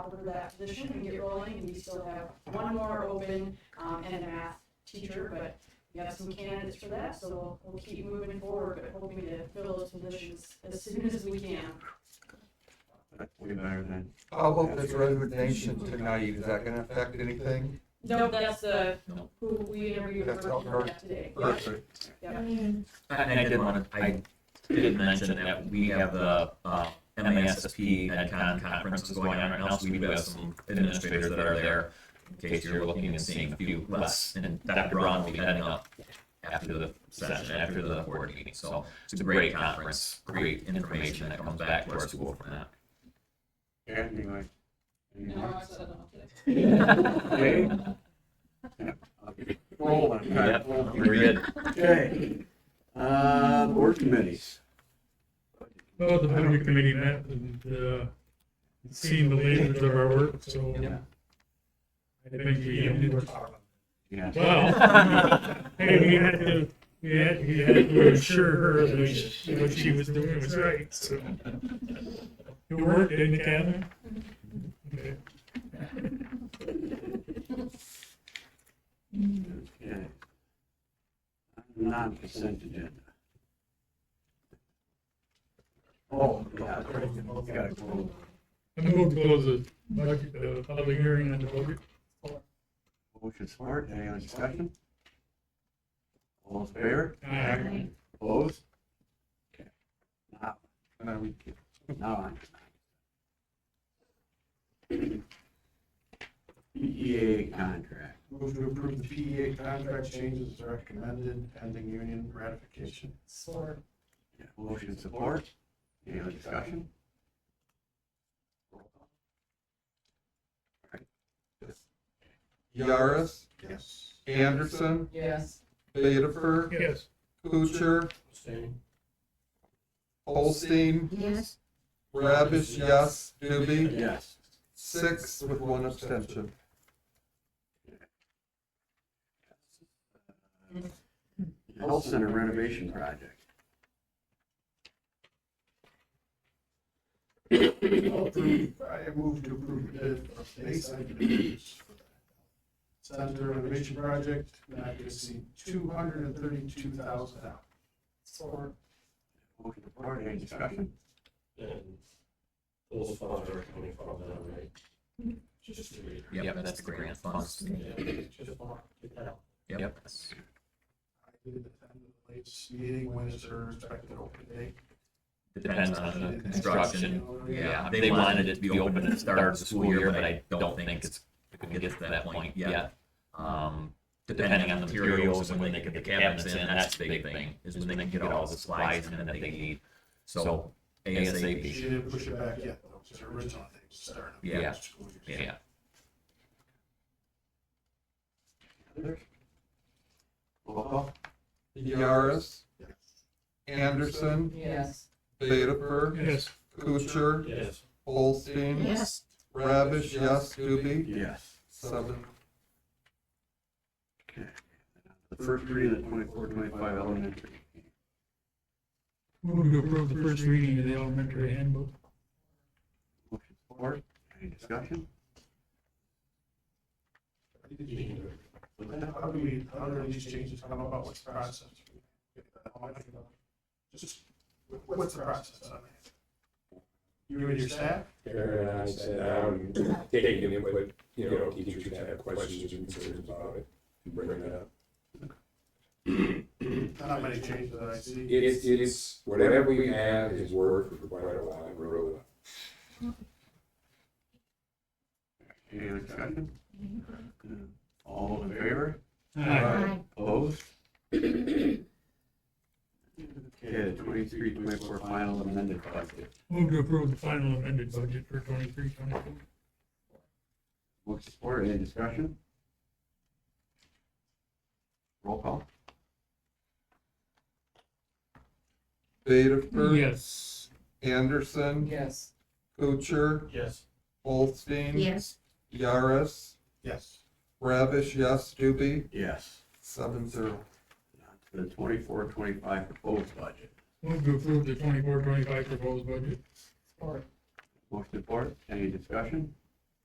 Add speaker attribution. Speaker 1: for that position and get rolling, and we still have one more open, um, and a math teacher, but we have some candidates for that, so we'll, we'll keep moving forward, but hoping to fill those positions as soon as we can.
Speaker 2: Way better than.
Speaker 3: How about this resignation tonight, is that gonna affect anything?
Speaker 1: No, that's the,
Speaker 4: No.
Speaker 1: who we interviewed
Speaker 3: That's
Speaker 1: for
Speaker 3: not her.
Speaker 1: yeah, today.
Speaker 3: Perfect.
Speaker 4: And I did want to, I did mention that we have the uh, MASSP EdCon conferences going on right now, so we do have some administrators that are there in case you're looking and seeing a few less. And Dr. Braun will be heading up after the session, after the board meeting. So it's a great conference, great information that comes back to our school from that.
Speaker 2: Anyway. Anyway.
Speaker 4: Yep,
Speaker 2: Okay. Yeah, I'll be Rolling. All right, rolling.
Speaker 4: Very good.
Speaker 2: Okay. Uh, board committees.
Speaker 5: Well, the budget committee met and, uh, seen the latest of our work, so I think we,
Speaker 2: Yeah.
Speaker 5: well, hey, we had to, we had, we had to assure her that what she was doing was right, so. It worked, didn't it, Kevin? Okay.
Speaker 2: Okay. Non-consent agenda. Oh, yeah. Gotta go.
Speaker 5: I'm going to close the budget, the public hearing on the budget.
Speaker 2: Motion support, any other discussion? All in favor?
Speaker 5: Aye.
Speaker 2: Opposed? Okay. Now, now on. PEA contract.
Speaker 6: Move to approve the PEA contract changes as recommended pending union ratification.
Speaker 2: Yeah, Motion support, any other discussion?
Speaker 3: Yaris,
Speaker 6: Yes.
Speaker 3: Anderson,
Speaker 1: Yes.
Speaker 3: Bedifer,
Speaker 5: Yes.
Speaker 3: Kucher,
Speaker 6: Abstain.
Speaker 3: Holstein. Yes. Rabish, yes, Doobie,
Speaker 2: Yes.
Speaker 3: six with one abstention.
Speaker 2: Health Center renovation project.
Speaker 6: Approve- I move to approve bid for Bayside Communities for that. Center renovation project not to exceed two hundred and thirty-two thousand dollars.
Speaker 2: Motion support, any discussion?
Speaker 7: And those funds are coming from them, right? Just to read.
Speaker 4: that's the grant funds.
Speaker 7: Just want to get that out.
Speaker 4: Yep.
Speaker 6: I did attend the latest meeting, when is her expected open date?
Speaker 4: Depends on the construction. Yeah, they wanted it to be open at the start of the school year, but I don't think it's gonna get to that point yet. Um, depending on the materials and when they get the cabinets in, that's the big thing, is when they can get all the supplies in that they need. So
Speaker 6: She
Speaker 4: ASAP,
Speaker 6: didn't push it back yet, though, because her original thing was starting.
Speaker 4: Yeah.
Speaker 6: next school year.
Speaker 4: yeah.
Speaker 2: Roll call?
Speaker 3: Yaris,
Speaker 6: Yes.
Speaker 3: Anderson,
Speaker 1: Yes.
Speaker 3: Bedifer,
Speaker 5: Yes.
Speaker 3: Kucher,
Speaker 7: Yes,
Speaker 3: Holstein.
Speaker 1: Yes.
Speaker 3: Rabish, yes, Doobie,
Speaker 2: Yes.
Speaker 3: seven.
Speaker 2: Okay. The first reading of 24, 25 elementary.
Speaker 5: Move to approve the first reading of the elementary handbook.
Speaker 2: Motion support, any discussion?
Speaker 6: But then how do we, how do these changes come about, what's the process? Just, what- what's the process on that? You and your staff?
Speaker 7: Karen and I said, um, taking input, you know, teachers who have questions or concerns about it, bring it up.
Speaker 6: Not many changes that I see.
Speaker 7: It's, it's, whatever we have is worked for quite a while, we're really
Speaker 2: Any other discussion? Hmm. All in favor?
Speaker 5: Aye.
Speaker 2: Opposed? Okay, the 23, 24 final amended budget.
Speaker 5: Move to approve the final amended budget for twenty-three, twenty-four.
Speaker 2: Motion support, any discussion? Roll call?
Speaker 3: Bedifer,
Speaker 5: Yes.
Speaker 3: Anderson,
Speaker 1: Yes.
Speaker 3: Kucher,
Speaker 7: Yes.
Speaker 3: Holstein.
Speaker 1: Yes.
Speaker 3: Yaris,
Speaker 6: Yes.
Speaker 3: Ravish, yes, Doobie,
Speaker 2: Yes.
Speaker 3: seven zero.
Speaker 2: The 24, 25 proposed budget.
Speaker 5: Move to approve the twenty-four, twenty-five proposed budget.
Speaker 2: Motion support, any discussion?